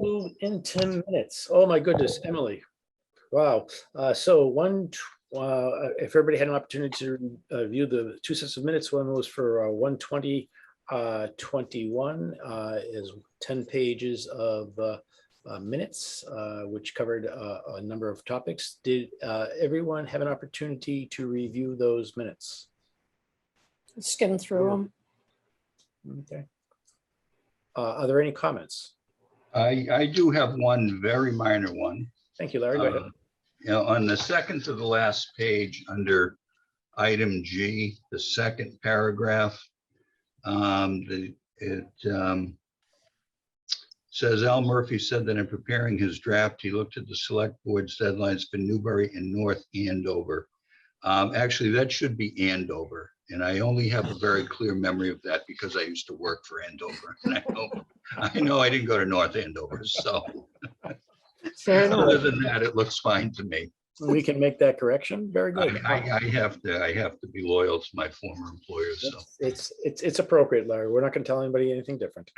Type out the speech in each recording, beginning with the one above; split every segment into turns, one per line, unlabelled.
Move in 10 minutes. Oh, my goodness, Emily. Wow. Uh, So one, tw- uh, if everybody had an opportunity to uh, view the two sets of minutes, one was for uh, 120, uh, 21 uh, is 10 pages of uh, uh, minutes, uh, which covered uh, a number of topics. Did uh, everyone have an opportunity to review those minutes?
skim through them.
Okay. Uh, Are there any comments?
I, I do have one very minor one.
Thank you, Larry. Go ahead.
Uh, You know, on the second to the last page, under item G, the second paragraph, um, the, it, um, says Al Murphy said that in preparing his draft, he looked at the select board's deadlines for Newbury and North Andover. Um, actually, that should be Andover, and I only have a very clear memory of that because I used to work for Andover. And I know- I know I didn't go to North Andover, so.
Fair
Other than that, it looks fine to me.
We can make that correction. Very
I,
good.
I, I have to, I have to be loyal to my former employer, so.
It's- It's, it's, it's appropriate, Larry. We're not going to tell anybody anything different.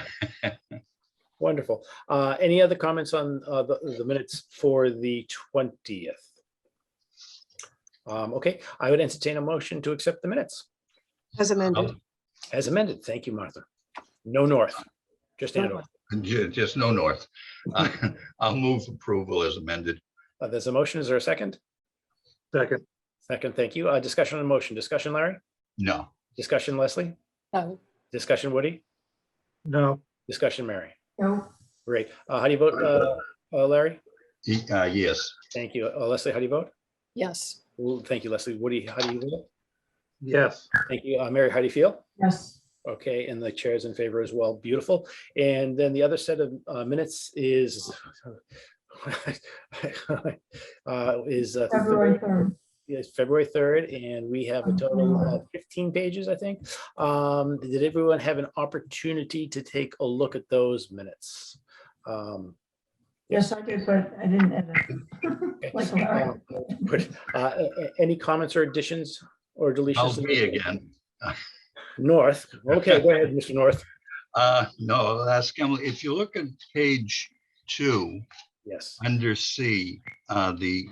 Wonderful. Uh, Any other comments on uh, the the minutes for the 20th? Um, Okay, I would entertain a motion to accept the minutes
As
Oh.
amended,
as amended. Thank you, Martha. No north, just Andover.
Ju- Just no north. Uh, I'll move approval as amended.
Uh, There's a motion. Is there a second?
Second,
Second, thank you. Uh, Discussion on the motion. Discussion, Larry?
No,
Discussion, Leslie?
No,
Discussion, Woody?
no,
Discussion, Mary? No. Great. Uh, How do you vote, uh, uh, Larry?
E- uh, yes,
Thank you. Uh, Leslie, how do you vote?
yes,
Well, thank you, Leslie. Woody, how do you vote?
yes,
Thank you. Uh, Mary, how do you feel?
Yes,
Okay, and the chair is in favor as well. Beautiful. And then the other set of uh, minutes is uh, is uh,
February third.
yes, February third, and we have a total of fifteen pages, I think. Um, did everyone have an opportunity to take a look at those minutes? Um,
Yes, I did, but I didn't edit. Like Larry.
um, but, uh, a- a- Any comments or additions or deletions?
I'll be again.
North. Okay, go ahead, Mr. North.
Uh, no, that's, Emily, if you look at page two,
Yes.
under C, uh, the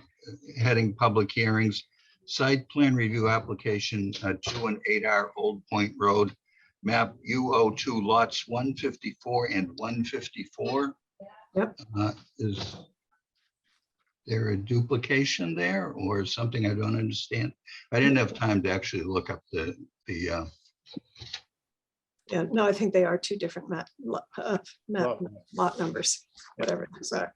heading public hearings, site plan review application, uh, two and eight R Old Point Road, map UO two lots one fifty-four and one fifty-four. Uh,
Yep.
Is there a duplication there or something I don't understand? I didn't have time to actually look up the, the, uh,
yeah, no, I think they are two different map, lo- uh, map,
Well,
lot numbers, whatever those are.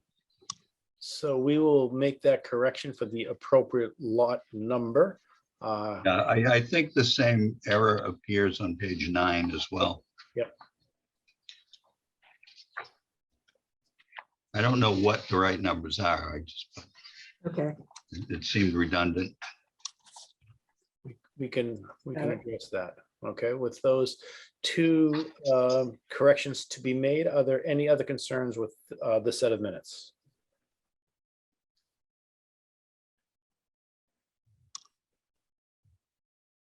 So we will make that correction for the appropriate lot number. Uh,
uh, I, I think the same error appears on page nine as well.
Yep.
I don't know what the right numbers are. I just,
Okay,
it seemed redundant.
We can, we can
Got it.
address that. Okay, with those two um, corrections to be made, are there any other concerns with uh, the set of minutes?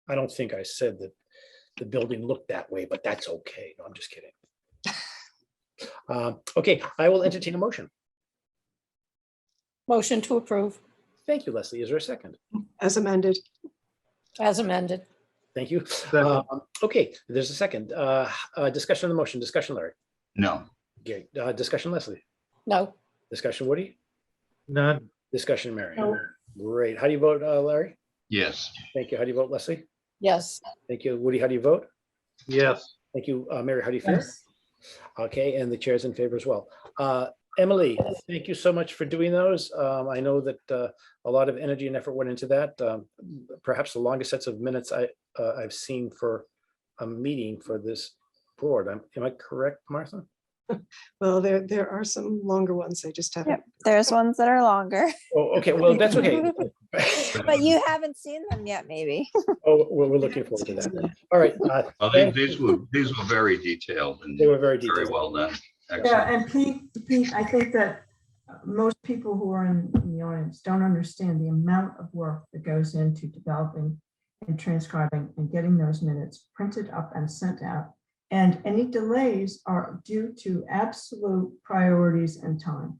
I don't think I said that the building looked that way, but that's okay. No, I'm just kidding. Um, Okay, I will entertain a motion.
motion to approve
Thank you, Leslie. Is there a second?
as amended,
as amended.
Thank you.
Second.
Um, Okay, there's a second. Uh, uh, Discussion on the motion, discussion, Larry.
No,
Okay, uh, discussion, Leslie.
No,
Discussion, Woody.
none,
Discussion, Mary.
No.
Great. How do you vote, uh, Larry?
yes,
Thank you. How do you vote, Leslie?
yes,
Thank you, Woody. How do you vote?
yes,
Thank you, uh, Mary. How do you feel?
Yes,
Okay, and the chair's in favor as well. Uh, Emily, thank you so much for doing those. Um, I know that uh, a lot of energy and effort went into that. Um, Perhaps the longest sets of minutes I, uh, I've seen for a meeting for this board. Am am I correct, Martha?
well, there, there are some longer ones, I just haven't.
There's ones that are longer,
Oh, okay, well, that's okay.
but you haven't seen them yet, maybe.
Oh, we're, we're looking forward to that. All right, uh,
well, they- these were, these were very detailed and
they were very
very
detailed.
well done.
yeah,
Excellent.
and Pete, Pete, I think that uh, most people who are in in the audience don't understand the amount of work that goes into developing and transcribing and getting those minutes printed up and sent out And any delays are due to absolute priorities and time.